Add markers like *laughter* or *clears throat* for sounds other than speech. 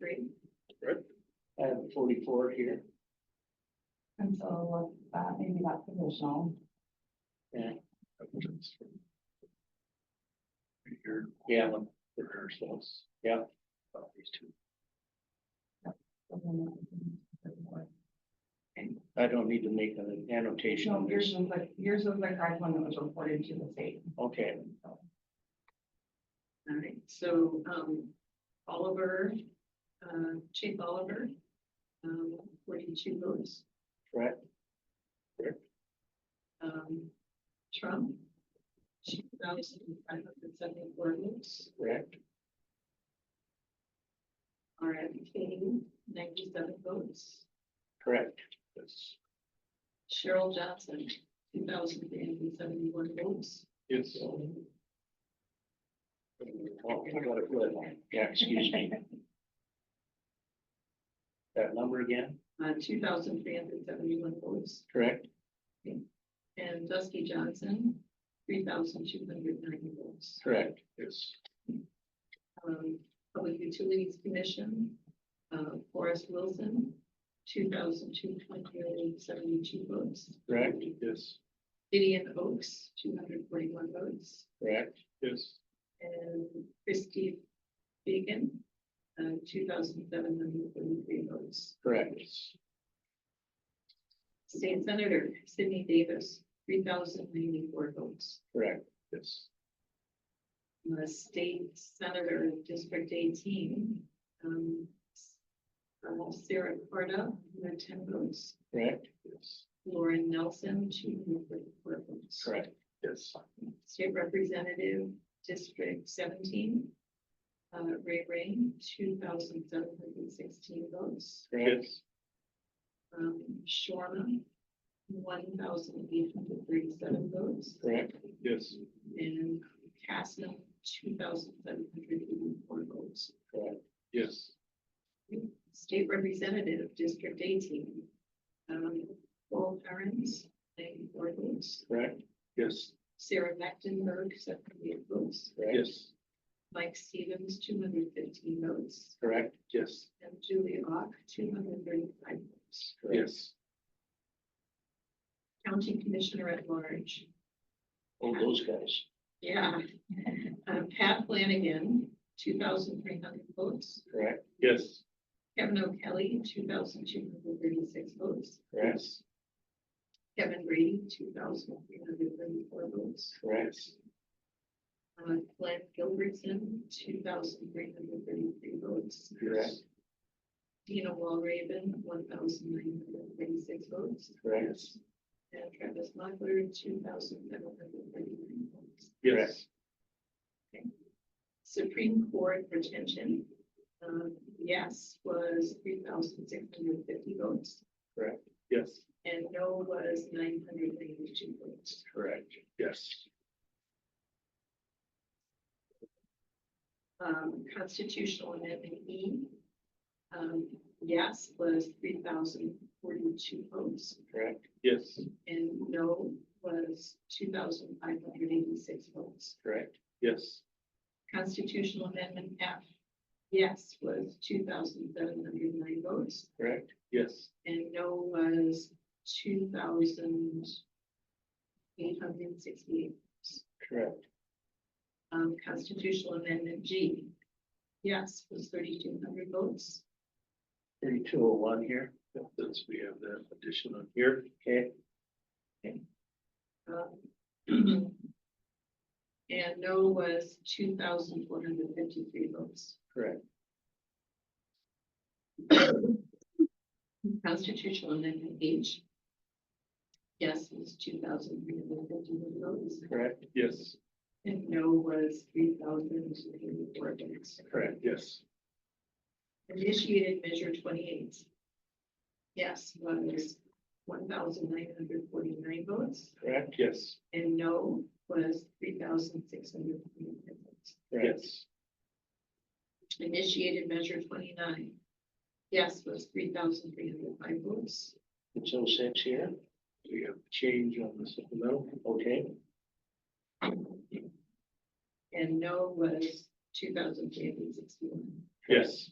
three, I have forty-four here. and so, uh, maybe not provisional. Here, Yeah, I'm for ourselves. Yeah. about these two. I don't need to make an annotation No, on yours this. was like, yours was the correct one that was reported to the state. Okay, All right, so, um, Oliver, uh, Chief Oliver, um, forty-two votes, correct. um, Trump, two thousand five hundred seventy-four votes, Correct. R.M. King, ninety-seven votes, Correct. Yes. Cheryl Johnson, two thousand three hundred seventy-one votes, Yes. Oh, I got it good. Yeah, excuse me. That number again, uh, two thousand three hundred seventy-one votes, correct? and Dusty Johnson, three thousand two hundred ninety votes. Correct. Yes. um, Public Utilities Commission, uh, Forrest Wilson, two thousand two hundred seventy-two votes. Correct. Yes. Gideon Oaks, two hundred forty-one votes, Correct. Yes. and Christie Beacon, uh, two thousand seven hundred forty-three votes. Correct. State Senator Sidney Davis, three thousand ninety-four votes. Correct. Yes. Uh, State Senator District eighteen, um, uh, Sarah Corda, who had ten votes. Correct. Yes. Lauren Nelson, two hundred forty-four votes. Correct. Yes. State Representative District seventeen, uh, Ray Rain, two thousand seven hundred sixteen votes. Correct. Um, Shorma, one thousand eight hundred thirty-seven votes, Correct. Yes. and Castle, two thousand seven hundred eighty-four votes. Correct. Yes. State Representative District eighteen, um, Paul Perrins, ninety-four votes. Correct. Yes. Sarah Mecklenburg, seventy-eight votes. Correct. Yes. Mike Stevens, two hundred fifteen votes, Correct. Yes. and Julie Ock, two hundred thirty-five votes. Yes. County Commissioner at Large, All those guys. yeah. *laughs* Um, Pat Flanagan, two thousand three hundred votes. Correct. Yes. Kevin O'Kelly, two thousand two hundred thirty-six votes. Correct. Kevin Brady, two thousand three hundred thirty-four votes. Correct. Uh, Glenn Gilbertson, two thousand three hundred thirty-three votes. Correct. Dina Walraven, one thousand nine hundred thirty-six votes. Correct. And Travis Mochler, two thousand seven hundred thirty-nine votes. Yes. Supreme Court retention, um, yes, was three thousand six hundred fifty votes, Yes. and no was nine hundred ninety-two votes. Correct. Yes. Um, Constitutional Amendment E, um, yes, was three thousand forty-two votes, Correct. Yes. and no was two thousand five hundred eighty-six votes. Correct. Yes. Constitutional Amendment F, yes, was two thousand seven hundred nine votes, Correct. Yes. and no was two thousand eight hundred sixty-eight. Correct. Um, constitutional amendment G, yes, was thirty-two hundred votes, Thirty-two oh one here. Since we have that addition on here, Okay. um. *clears throat* And no was two thousand four hundred fifty-three votes. Correct. Constitutional amendment H, yes, was two thousand three hundred fifty-one votes, Correct. Yes. and no was three thousand eighty-four votes. Correct. Yes. Initiated measure twenty-eight. Yes, was one thousand nine hundred forty-nine votes, Correct. Yes. and no was three thousand six hundred forty-nine votes. Yes. Initiated measure twenty-nine. Yes, was three thousand three hundred five votes, It's oh six here. We have change on the supplemental. Okay. and no was two thousand three hundred sixty-one. Yes.